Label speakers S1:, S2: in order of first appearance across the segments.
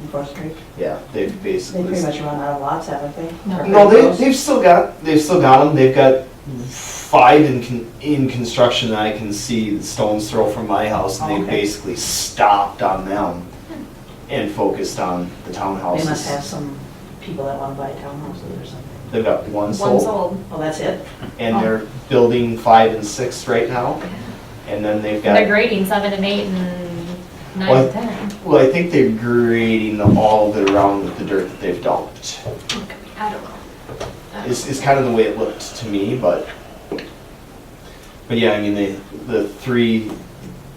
S1: in Fourth Street?
S2: Yeah, they've
S1: They
S2: basically.
S1: pretty much run out of lots, haven't they?
S3: No.
S2: No, they, they've still got, they've still got them, they've got five in, con- in construction that I can see the stones throw from my house, and they
S1: Oh, Okay.
S2: basically stopped on them and focused on the
S1: They must have
S2: townhouses.
S1: some people that want to buy townhouses or something.
S2: They've got one
S3: One
S2: sold,
S3: sold.
S1: Oh, that's it?
S2: and they're building five and six right now, and then they've
S3: And they're
S2: got,
S3: grading seven and eight and nine
S2: Well,
S3: and ten.
S2: well, I think they're grading all of it around with the dirt that they've dumped.
S3: I don't know. I don't
S2: is, is kind of the way it looked to me, but, but yeah, I mean, they, the three,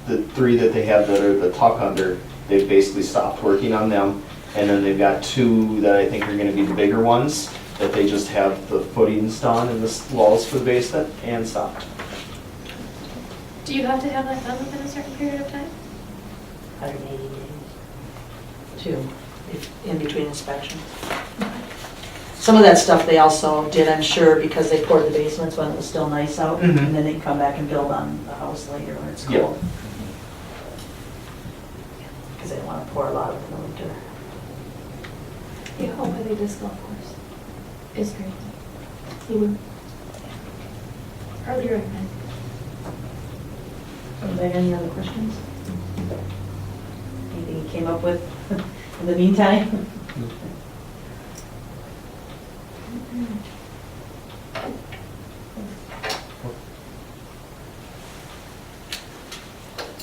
S2: the three that they have that are the tuck under, they've basically stopped working on them. And then they've got two that I think are gonna be the bigger ones, that they just have the footings done and the s- walls for the basement and stopped.
S3: know. Do you have to have that done within a certain period of time?
S1: 180 days. Two, if- in between inspections. Some of that stuff they also did, I'm sure, because they poured the basements when it was still nice out,
S2: Mhm.
S1: and then they come back and build on the house later when it's
S2: Yep.
S1: cold. Because they don't want to pour a lot in the winter.
S3: Yeah, hopefully this golf course is great. You would. Earlier,
S1: Anybody have any other questions? Anything you came up with in the meantime?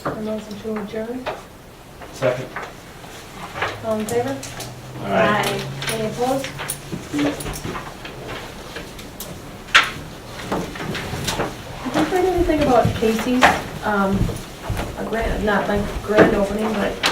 S4: And motion to adjourn,
S2: Second.
S4: all in favor? Any opposed? Did you find anything about Casey's, um, a grand, not like grand opening, but